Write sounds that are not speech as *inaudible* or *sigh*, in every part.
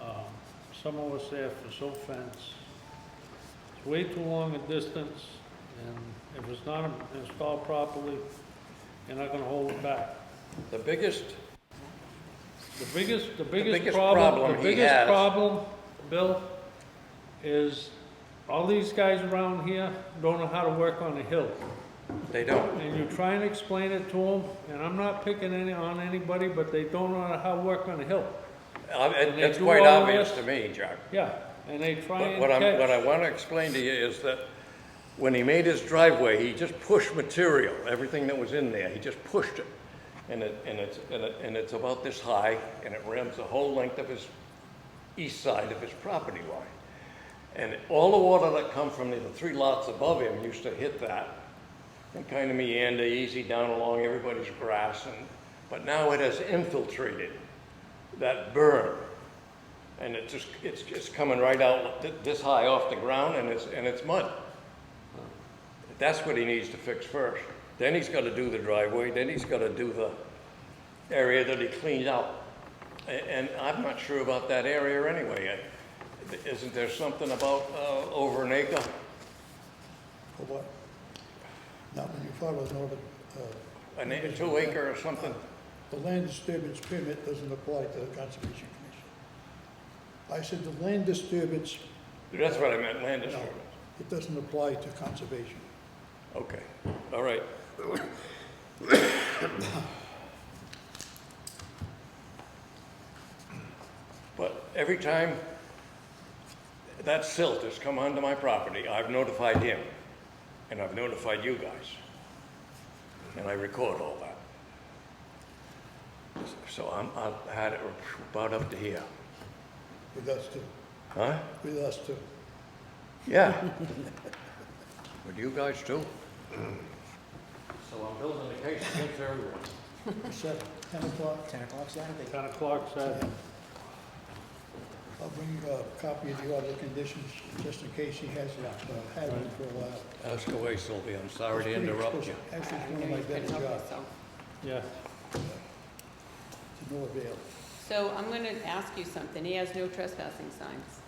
Uh, Someone was there for so fence. It's way too long a distance, and if it's not installed properly, you're not gonna hold it back. The biggest, The biggest, the biggest biggest problem, problem the he biggest has- problem, Bill, is all these guys around here don't know how to work on a hill. they don't. And you try and explain it to them, and I'm not picking any, on anybody, but they don't know how to work on a hill. Uh, it- they It's do quite all obvious this? to me, Jack. Yeah, and they try But and What I'm, what I catch. want to explain to you is that when he made his driveway, he just pushed material, everything that was in there, he just pushed it. And it, and it's, and it, and it's about this high, and it rims the whole length of his, east side of his property line. And all the water that come from the three lots above him used to hit that and kind of meander easy down along everybody's grass and, but now it has infiltrated that berm. And it just, it's, it's coming right out thi- this high off the ground and it's, and it's mud. That's what he needs to fix first. Then he's gotta do the driveway, then he's gotta do the area that he cleaned out. A- And I'm not sure about that area anyway. I- Isn't there something about, uh, over an acre? For what? Now, when you follow Northern, uh, An acre, two acre or something? the land disturbance permit doesn't apply to the Conservation Commission. I said the land disturbance, That's what I meant, land no, disturbance. it doesn't apply to conservation. Okay, all right. But every time that silt has come onto my property, I've notified him, and I've notified you guys. And I record all that. So I'm, I've had it about up to here, With us too, huh? with us too. *laughs* Yeah. Would you guys too? So I'm building a case against everyone. Seven, ten o'clock, Ten o'clock Saturday. Ten o'clock Saturday. I'll bring uh, a copy of the other conditions, just in case he hasn't uh, had one for a while. Ask away, Sylvia, I'm sorry It's to pretty interrupt you. explicit. Actually, it's one of my better jobs, Yeah, to no avail. So I'm going to ask you something. He has no trespassing signs.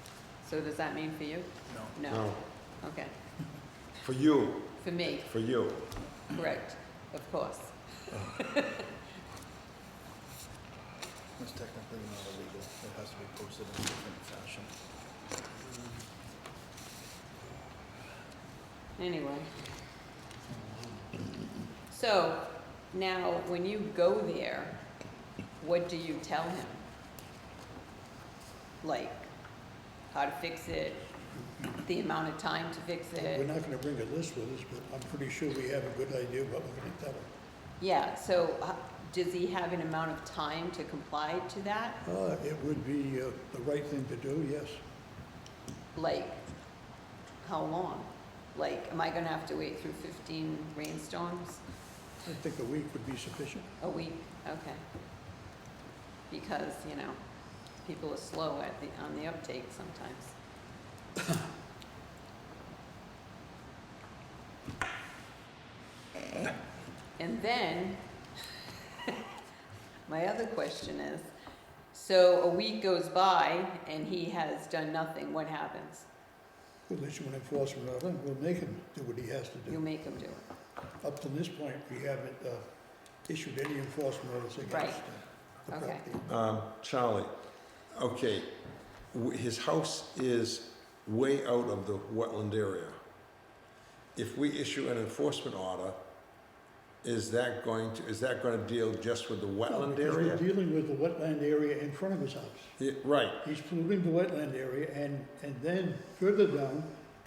So does that mean for you? No. No? No, Okay. for you, For me, for you. correct, of course. It's technically not illegal. It has to be posted in a different fashion. Anyway. So now, when you go there, what do you tell him? Like, how to fix it, the amount of time to fix We're it? not gonna bring a list with us, but I'm pretty sure we have a good idea what we're gonna tell him. Yeah, so uh, does he have an amount of time to comply to that? Uh, It would be uh, the right thing to do, yes. like, how long? Like, am I gonna have to wait through fifteen rainstorms? I think a week would be sufficient. A week? Okay. Because, you know, people are slow at the, on the uptake sometimes. And then, *laughs* my other question is, so a week goes by and he has done nothing, what happens? We'll issue an enforcement order, and we'll make him do what he has to You do. make him do it. Up to this point, we haven't uh, issued any enforcement orders Right. against uh, the Okay. property. Um, Charlie, okay, w- his house is way out of the wetland area. If we issue an enforcement order, is that going to, is that gonna deal just with the wetland Because area? We're dealing with the wetland area in front of his house. Yeah, Right, He's polluting the wetland area, and, and then further down,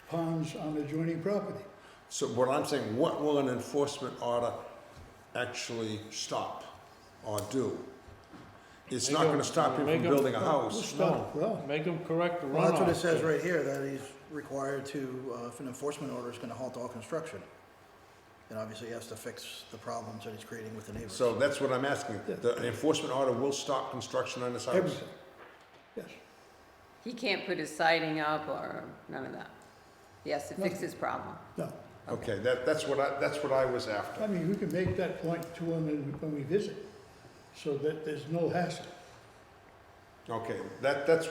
ponds on adjoining property. so what I'm saying, what will an enforcement order actually stop or do? It's not gonna stop you Make from 'em- building a We'll house. stop, well, make them correct the runoff. Well, that's what it says right here, that he's required to, uh, if an enforcement order is gonna halt all construction. And obviously he has to fix the problems that he's creating with the neighbors. So that's what I'm asking. The enforcement order will stop construction on this house? everything, yes. He can't put his siding up or none of that. He has to fix his problem. No, Okay, that, that's what I, that's what I was after. I mean, we can make that point to him when- when we visit, so that there's no hassle. Okay, that, that's